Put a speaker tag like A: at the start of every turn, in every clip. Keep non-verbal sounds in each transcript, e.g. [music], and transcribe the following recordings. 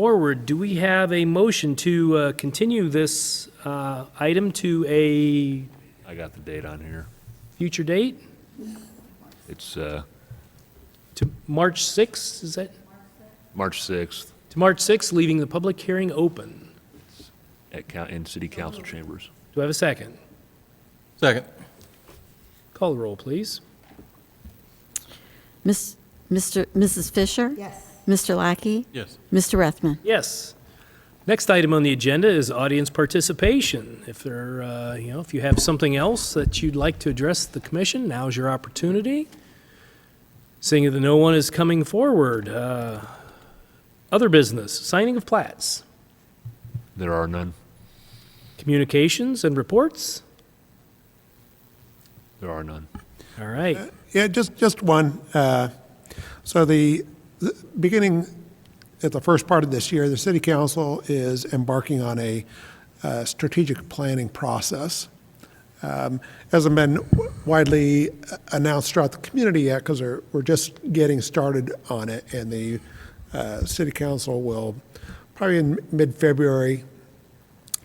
A: forward, do we have a motion to uh, continue this uh, item to a
B: I got the date on here.
A: future date?
B: It's uh,
A: To March 6th, is that?
B: March 6th
A: To March 6th, leaving the public hearing open.
B: at, coun- in City Council Chambers.
A: Do I have a second?
C: Second.
A: Call the roll, please.
D: Miss, Mr., Mrs. Fisher?
E: Yes.
D: Mr. Lackey?
C: Yes.
D: Mr. Rethman?
A: Yes. Next item on the agenda is audience participation. If there, uh, you know, if you have something else that you'd like to address the commission, now's your opportunity. Seeing that no one is coming forward, uh, other business, signing of plats,
B: There are none.
A: communications and reports.
B: There are none.
A: All right.
F: Yeah, just, just one. Uh, So the, the- beginning at the first part of this year, the city council is embarking on a uh, strategic planning process. Um, Hasn't been widely announced throughout the community yet because we're, we're just getting started on it. And the uh, city council will, probably in mid-February,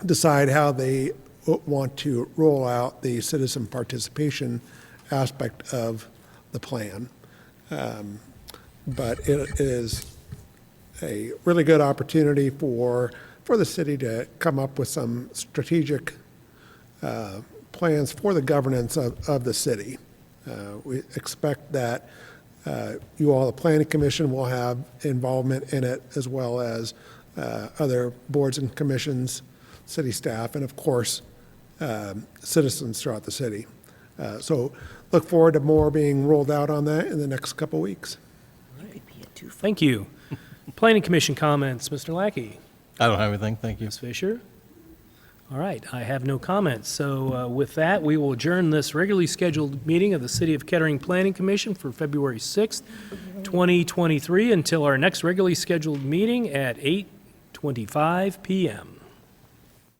F: decide how they w- want to roll out the citizen participation aspect of the plan. Um, But it is a really good opportunity for, for the city to come up with some strategic uh, plans for the governance of, of the city. Uh, We expect that uh, you all, the planning commission, will have involvement in it as well as uh, other boards and commissions, city staff, and of course, um, citizens throughout the city. Uh, So look forward to more being rolled out on that in the next couple weeks.
A: Thank you. [laughs] Planning Commission comments, Mr. Lackey,
C: I don't have anything, thank you.
A: Ms. Fisher. All right, I have no comments. So uh, with that, we will adjourn this regularly scheduled meeting of the City of Kettering Planning Commission for February 6th, 2023, until our next regularly scheduled meeting at 8:25 PM.